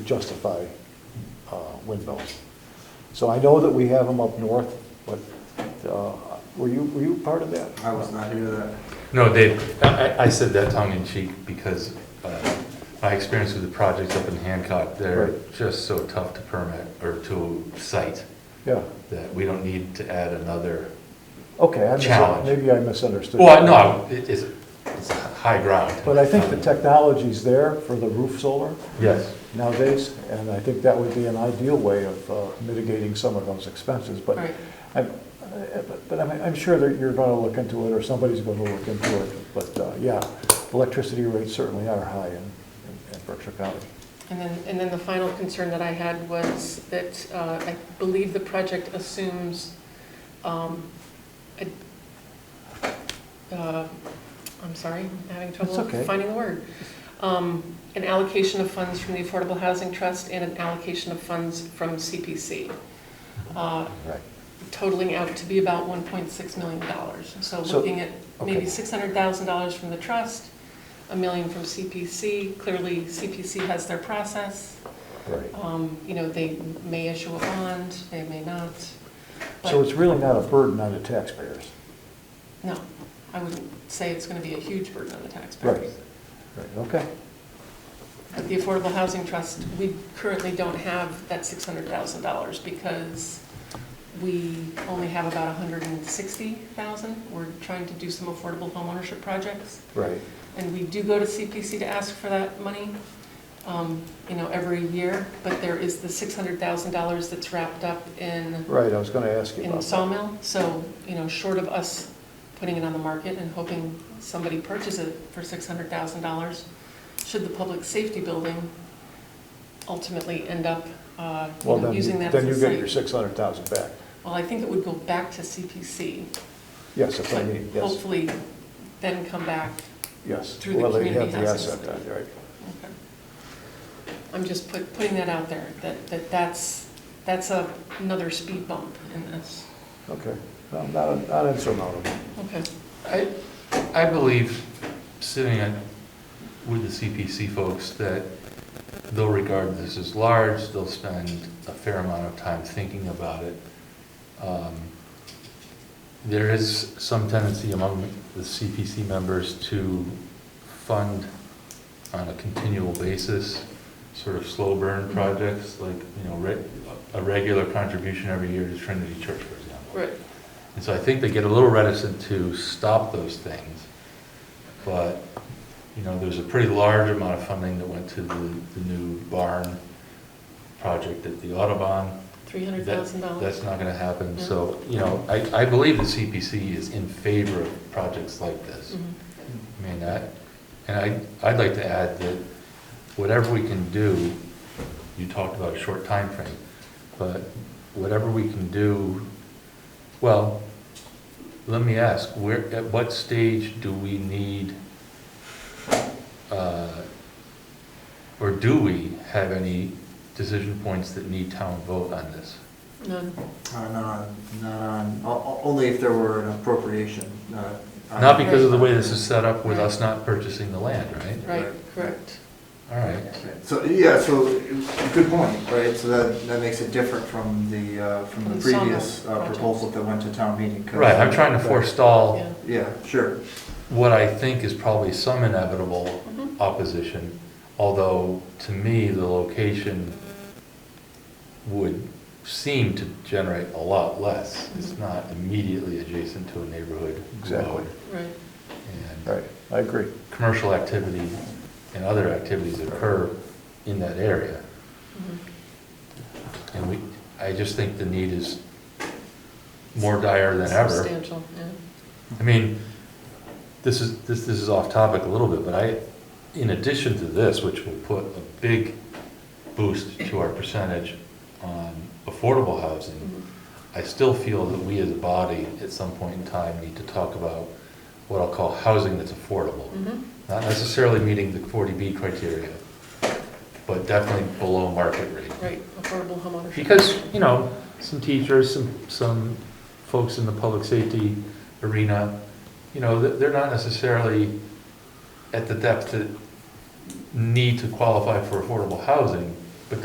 justify uh, windmills. So I know that we have them up north, but uh, were you, were you part of that? I was not here that. No, Dave, I, I- I said that tongue in cheek because uh, my experience with the projects up in Hancock, they're Right. just so tough to permit or to cite Yeah, that we don't need to add another. okay, I mis- Challenge. maybe I misunderstood. Well, no, it is, it's high ground. Um, But I think the technology's there for the roof solar Yes. nowadays, and I think that would be an ideal way of uh, mitigating some of those expenses, but Right. I'm, uh, but- but I'm, I'm sure that you're gonna look into it, or somebody's gonna look into it, but, uh, yeah, electricity rates certainly are high in, in- in Berkshire County. And then, and then the final concern that I had was that uh, I believe the project assumes, um, a- uh, I'm sorry, I'm having trouble That's okay. finding the word. Um, An allocation of funds from the Affordable Housing Trust and an allocation of funds from CPC, uh, Right. totaling out to be about $1.6 million. So So- looking at maybe okay. $600,000 from the trust, a million from CPC. Clearly, CPC has their process. Right. Um, You know, they may issue a bond, they may not. So But it's really not a burden on the taxpayers. no, I wouldn't say it's going to be a huge burden on the Right. taxpayers. Right, okay, But the Affordable Housing Trust, we currently don't have that $600,000 because we only have about 160,000. We're trying to do some affordable homeownership projects. right, And we do go to CPC to ask for that money, um, you know, every year. But there is the $600,000 that's wrapped up in right, I was gonna ask you in about that. Sawmill, so, you know, short of us putting it on the market and hoping somebody purchases it for six hundred thousand dollars, should the public safety building ultimately end up, uh, you Well, know, then, using you- that as then a you get your site? six hundred thousand back. Well, I think it would go back to CPC, Yes, that's what I but mean, yes, hopefully then come back. yes. through the Well, they have community the housing asset, study. Right, Okay. I'm just put, putting that out there, that, that that's, that's a, another speed bump in this. okay, No, not, not insurmountable. Okay, I, I believe, sitting at- with the CPC folks, that they'll regard this as large, they'll spend a fair amount of time thinking about it. Um, There is some tendency among the CPC members to fund on a continual basis, sort of slow burn projects, like, you know, re- a regular contribution every year to Trinity Church, for example. right. And so I think they get a little reticent to stop those things. But, you know, there's a pretty large amount of funding that went to the, the new barn project at the Audubon. Three hundred thousand That- dollars. That's not gonna happen, so, you know, I, I believe the CPC is in favor of projects like this. Mm-hmm. I mean, I, and I, I'd like to add that whatever we can do, you talked about a short time frame, but whatever we can do, well, let me ask, where, at what stage do we need, uh, or do we have any decision points that need town vote on this? None. Uh, Not on, not on, o- o- only if there were an appropriation. uh, not- Not because of the way this is set up with us not purchasing the land, right? Right, Right. correct. All right. So, yeah, so, good point, right, so that, that makes it different from the, uh, from From the the sawmill previous uh, project. proposal that went to town meeting. 'cause- Right, I'm trying to forestall Yeah. Yeah, sure, what I think is probably some inevitable Mhm. opposition, although to me, the location would seem to generate a lot less. It's Mhm. not immediately adjacent to a neighborhood. Exactly. road, Right. And Right, I agree. commercial activity and other activities occur in that area. Mhm. And we, I just think the need is more dire than ever. Substantial, yeah. I mean, this is, this, this is off topic a little bit, but I, in addition to this, which will put a big boost to our percentage on affordable housing, Mhm. I still feel that we as a body, at some point in time, need to talk about what I'll call housing that's affordable. Mhm. Not necessarily meeting the forty B criteria, but definitely below market rate. Right, affordable homeownership. Because, you know, some teachers, some, some folks in the public safety arena, you know, they're they're not necessarily at the depth that need to qualify for affordable housing,